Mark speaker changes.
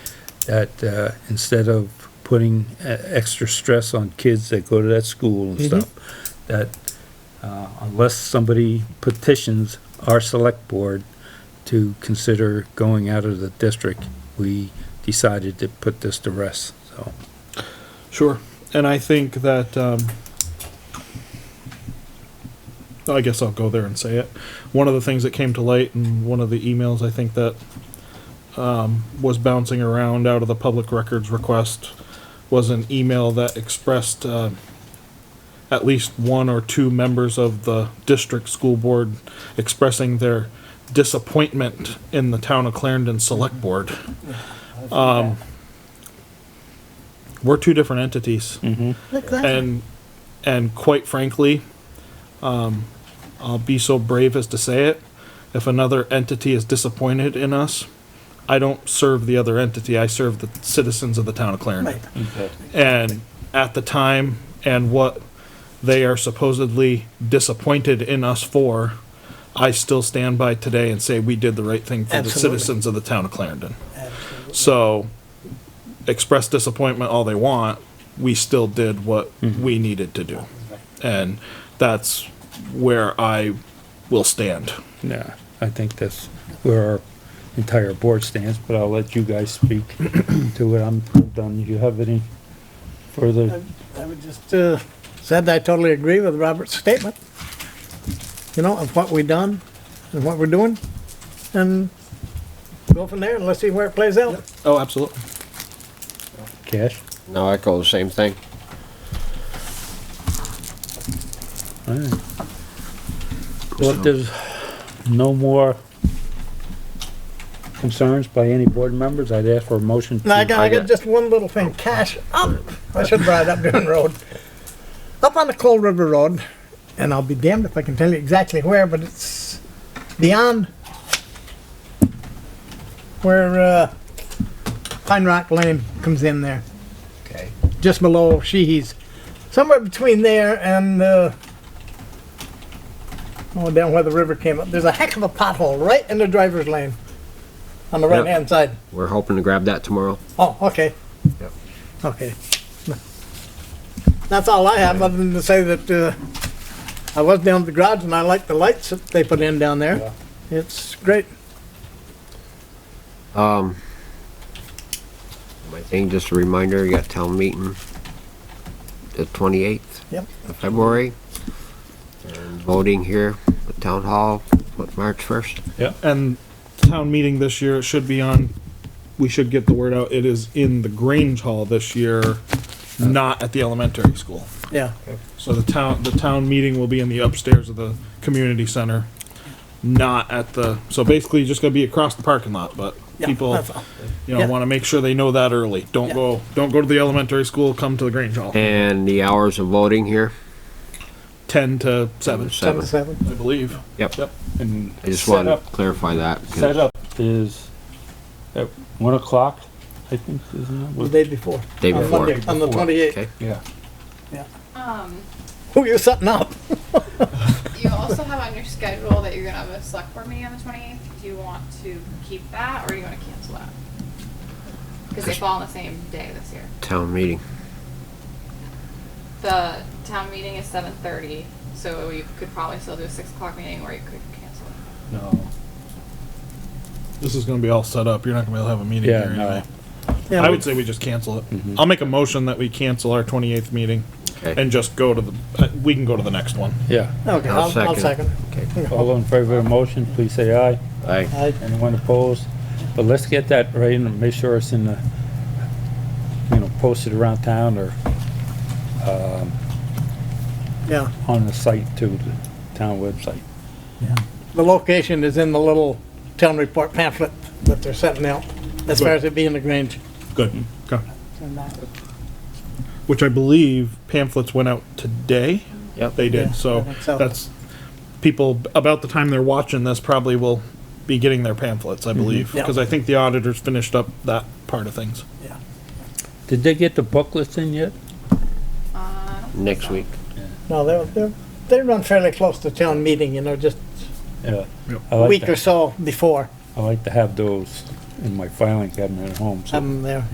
Speaker 1: that, uh, instead of putting e- extra stress on kids that go to that school and stuff, that, uh, unless somebody petitions our select board to consider going out of the district, we decided to put this to rest, so.
Speaker 2: Sure. And I think that, um, I guess I'll go there and say it. One of the things that came to light in one of the emails, I think that, um, was bouncing around out of the public records request was an email that expressed, uh, at least one or two members of the district school board expressing their disappointment in the town of Clarendon Select Board. Um, we're two different entities
Speaker 3: Look, that's
Speaker 2: and and quite frankly, um, I'll be so brave as to say it. If another entity is disappointed in us, I don't serve the other entity. I serve the citizens of the town of Clarendon. And at the time and what they are supposedly disappointed in us for, I still stand by today and say we did the right thing for
Speaker 4: Absolutely.
Speaker 2: the citizens of the town of Clarendon. So express disappointment all they want, we still did what we needed to do. And that's where I will stand.
Speaker 1: Yeah, I think that's where our entire board stands, but I'll let you guys speak to it. I'm done. Do you have any further?
Speaker 4: I would just, uh, said that I totally agree with Robert's statement. You know, of what we done and what we're doing, and go from there and let's see where it plays out.
Speaker 2: Oh, absolutely.
Speaker 1: Cash?
Speaker 5: No, I call the same thing.
Speaker 1: All right. Well, if there's no more concerns by any board members, I'd ask for a motion. to-
Speaker 4: Now, I got, I got
Speaker 5: I-
Speaker 4: just one little thing, cash up, I should ride up Dune Road, up on the Cold River Road, and I'll be damned if I can tell you exactly where, but it's beyond where, uh, Pine Rock Lane comes in there.
Speaker 5: Okay.
Speaker 4: just below Sheehy's, somewhere between there and uh, oh, down where the river came up. There's a heck of a pothole right in the driver's lane on the
Speaker 5: Yep.
Speaker 4: right hand side.
Speaker 5: We're hoping to grab that tomorrow.
Speaker 4: Oh, okay.
Speaker 5: Yep.
Speaker 4: Okay. That's all I have, other than to say that uh, I was down at the garage and I like the lights that they put in down there. It's great.
Speaker 5: Um, my thing, just a reminder, you got town meeting the twenty-eighth
Speaker 4: Yep.
Speaker 5: of February. And voting here at town hall, what, March first?
Speaker 2: And town meeting this year should be on, we should get the word out, it is in the Grange Hall this year, not at the elementary school.
Speaker 4: Yeah.
Speaker 2: So the town, the town meeting will be in the upstairs of the community center, not at the, so basically you're just gonna be across the parking lot, but
Speaker 4: Yeah,
Speaker 2: people,
Speaker 4: that's all.
Speaker 2: you know,
Speaker 4: Yeah.
Speaker 2: wanna make sure they know that early. Don't
Speaker 4: Yeah.
Speaker 2: go, don't go to the elementary school, come to the Grange Hall.
Speaker 5: And the hours of voting here,
Speaker 2: 10 to 7,
Speaker 4: Seven,
Speaker 5: seven.
Speaker 4: seven.
Speaker 2: I believe.
Speaker 5: Yep,
Speaker 2: Yep. And
Speaker 5: I just
Speaker 2: set
Speaker 5: wanted
Speaker 2: up-
Speaker 5: to clarify that. 'cause-
Speaker 1: Set up is at one o'clock, I think, isn't
Speaker 4: The
Speaker 1: it?
Speaker 4: day before.
Speaker 5: Day
Speaker 4: on
Speaker 5: before.
Speaker 4: Monday, on the 28th.
Speaker 5: Okay.
Speaker 1: Yeah.
Speaker 6: Um,
Speaker 4: Who you setting up?
Speaker 6: you also have on your schedule that you're gonna have a select board meeting on the twenty-eighth. Do you want to keep that or do you wanna cancel that? Cause they fall on the same day this year.
Speaker 5: Town meeting.
Speaker 6: The town meeting is seven thirty, so you could probably still do a six o'clock meeting or you could cancel it.
Speaker 1: No.
Speaker 2: this is going to be all set up. You're not going to be able to have a meeting
Speaker 1: Yeah,
Speaker 2: here
Speaker 1: no.
Speaker 2: anyway.
Speaker 4: Yeah,
Speaker 2: I would say we just cancel it. I'll make a motion that we cancel our 28th meeting
Speaker 5: Okay.
Speaker 2: and just go to the, uh, we can go to the next one.
Speaker 1: Yeah.
Speaker 4: Okay,
Speaker 5: I'll
Speaker 4: I'll, I'll
Speaker 5: second.
Speaker 4: second.
Speaker 1: All in favor of the motion, please say aye.
Speaker 5: Aye.
Speaker 4: I,
Speaker 1: Anyone opposed? But let's get that right and make sure it's in the, you know, posted around town or
Speaker 4: yeah.
Speaker 1: on the site too, the town website.
Speaker 4: The location is in the little town report pamphlet that they're setting out, as far as it being the Grange.
Speaker 2: Good. Okay. Which I believe pamphlets went out today.
Speaker 5: Yep.
Speaker 2: They did.
Speaker 4: Yeah, I
Speaker 2: so
Speaker 4: think so.
Speaker 2: that's people about the time they're watching this probably will be getting their pamphlets, I believe,
Speaker 4: Mm-hmm. Yeah.
Speaker 2: because I think the auditors finished up that part of things.
Speaker 1: Did they get the booklets in yet?
Speaker 6: Uh, I don't think
Speaker 5: Next
Speaker 6: so.
Speaker 5: week.
Speaker 4: No, they're, they're, they run fairly close to town meeting, you know, just
Speaker 1: Yeah.
Speaker 2: Yep.
Speaker 1: I
Speaker 4: a
Speaker 1: like
Speaker 4: week or
Speaker 1: to,
Speaker 4: so before,
Speaker 1: I like to have those in my filing cabinet at home, so.
Speaker 4: Um, I'm there.